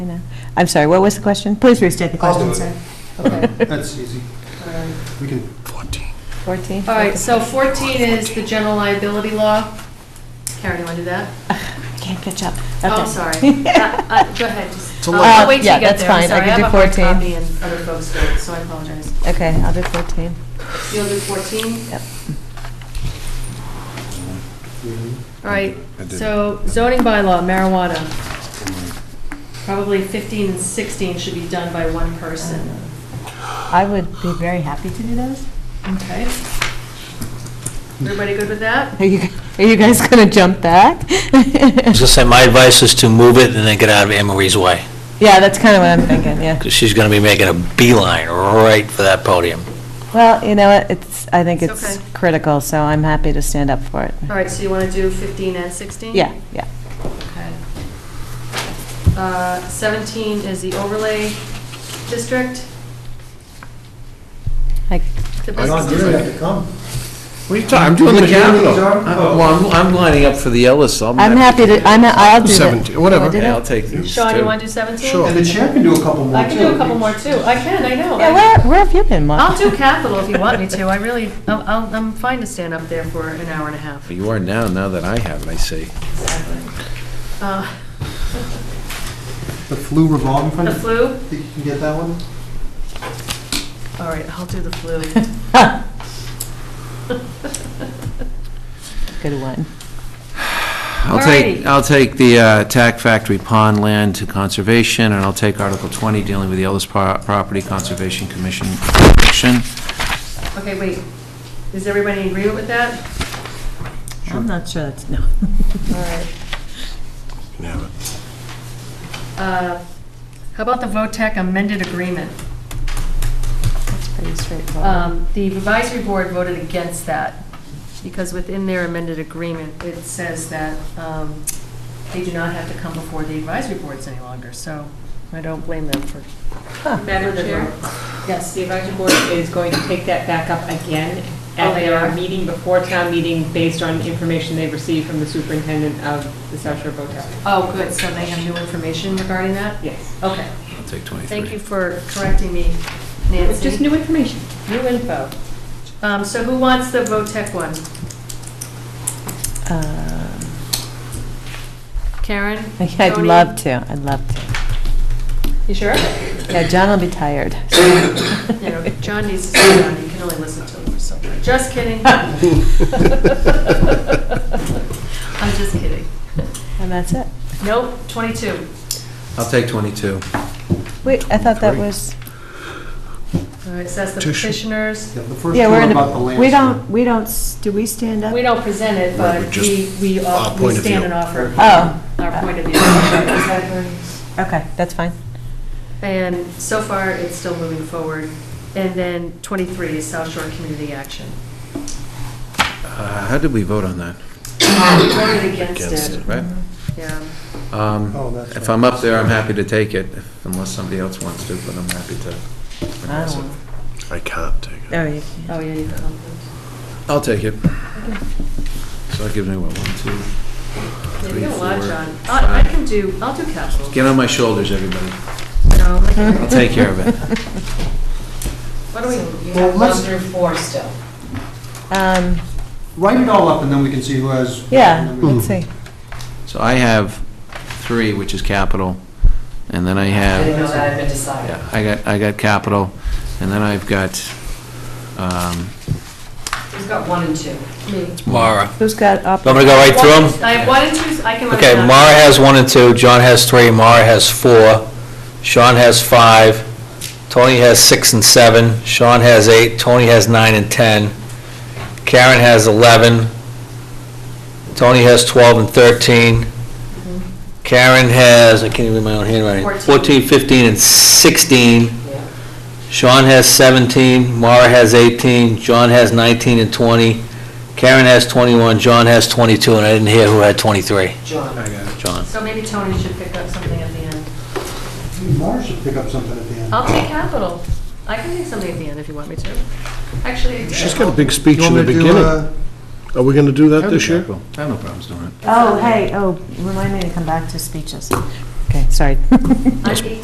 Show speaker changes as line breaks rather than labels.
I'm sorry, what was the question? Please restate the
I'll
question.
do it.
Consent. Okay,
That's easy.
all right.
We can,
14?
All right, so 14 is the general liability law. Karen, you want to do that?
Can't catch up.
Oh,
Okay.
sorry. Uh, uh, Go ahead. just-
a
I'll-
lot.
I'll wait till
Yeah,
you get
that's
there. I'm
fine. I
sorry.
can do
I
14.
have a hard copy and other folks don't, so I apologize.
Okay, I'll do 14.
You'll do 14?
Yep.
All right,
I did.
so zoning bylaw, marijuana. Probably 15 and 16 should be done by one person.
I would be very happy to do those.
Okay. Everybody good with that?
Are you, are you guys going to jump back?
I was going to say, my advice is to move it and then get out of Anne Marie's way,
Yeah, that's kind of what I'm thinking, yeah.
because she's going to be making a beeline right for that podium.
Well, you know, what, it's, I think
It's
it's
okay.
critical, so I'm happy to stand up for it.
All right, so you want to do 15 and 16?
Yeah, yeah.
Okay. Uh, 17 is the overlay district.
Like,
The
I don't
business
really
district.
have to come.
What are you talking, I'm doing the Capitol.
Oh.
Uh, Well, I'm, I'm lining up for the Ellis, so I'm.
I'm happy to, I'm, I'll do that.
17, whatever.
Oh, did I?
Yeah, I'll take these
Sean, you
too.
want to do 17?
Sure.
And the chair can do a couple more,
I
too.
can do a couple more, too. I can, I know.
Yeah, where, where have you been, Mark?
I'll do capital if you want me to. I really, I'm- I'm I'm fine to stand up there for an hour and a half.
You are now, now that I have it, I see.
Uh,
The flu revolving fund,
The flu?
you can get that one?
All right, I'll do the flu.
Good one.
I'll take,
Alrighty.
I'll take the uh, Tac Factory Pond land to conservation, and I'll take Article 20, dealing with the Ellis Pro- Property Conservation Commission action.
Okay, wait. Is everybody in agreement with that?
I'm not sure that's, no.
All right. Uh, How about the VOTEC amended agreement?
That's pretty straightforward.
Um, The advisory board voted against that, because within their amended agreement, it says that um, they do not have to come before the advisory boards any longer, so I don't blame them for.
Madam Chair? Yes, the advisory board is going to take that back up again
Oh,
at
they are?
their meeting before town meeting based on information they've received from the superintendent of the South Shore Hotel.
Oh, good, so they have new information regarding that?
Yes.
Okay,
I'll take 23.
thank you for correcting me,
It's just
Nancy.
new information.
New info. Um, So who wants the VOTEC one?
Um,
Karen?
I'd
Tony?
love to, I'd love to.
You sure?
Yeah, John will be tired.
You know, John needs to sit down, you can only listen to him for so long. Just kidding. I'm just kidding.
And that's it.
Nope, 22.
I'll take 22.
Wait, I thought that was,
All right, so that's Uh, the petitioners.
Yeah, the first
yeah, we're
one
in
about
the,
the land.
we don't, we don't, s- do we stand up?
We don't present it, but we, we all- we stand and offer
Oh,
our point of view.
okay, that's fine.
And so far, it's still moving forward. And then 23 is South Shore Community Action.
Uh, How did we vote on that?
Voted against it,
Right?
yeah.
Um,
Oh, that's
If
right.
I'm up there, I'm happy to take it, unless somebody else wants to, but I'm happy to.
I don't know.
I can't take it.
Oh, you
Oh, yeah, you found them.
I'll take it. So that gives me, what, one, two?
Yeah, You got a lot,
Three, four,
John. I I
five.
can do, I'll do capital.
Get on my shoulders, everybody.
No, I can-
I'll take care of it.
What do we,
Well, let's
Um,
write it all up, and then we can see who has.
yeah, let's see.
So I have three, which is capital, and then I have,
know that had been decided.
yeah, I got, I got capital, and then I've got, um,
Who's got one and two?
me.
Mara.
Who's got up?
Want me to go right through them?
I have one and two, I can run it
Okay,
down.
Mara has one and two, John has three, Mara has four, Sean has five, Tony has six and seven, Sean has eight, Tony has nine and 10, Karen has 11, Tony has 12 and 13,
Mm-hmm.
Karen has, I can't even read my own handwriting,
Fourteen.
14, 15, and 16,
Yeah.
Sean has 17, Mara has 18, John has 19 and 20, Karen has 21, John has 22, and I didn't hear who had 23.
John.
John.
So maybe Tony should pick up something at the end.
Mara should pick up something at the end.
I'll take capital. I can take something at the end if you want me to. Actually, I do.
She's got a big speech
You
in
want
the
me to do,
beginning.
uh,
Are we going to do that this year?
I have no problems doing it.
Oh, hey, oh, remind me to come back to speeches.
okay, sorry.
On 18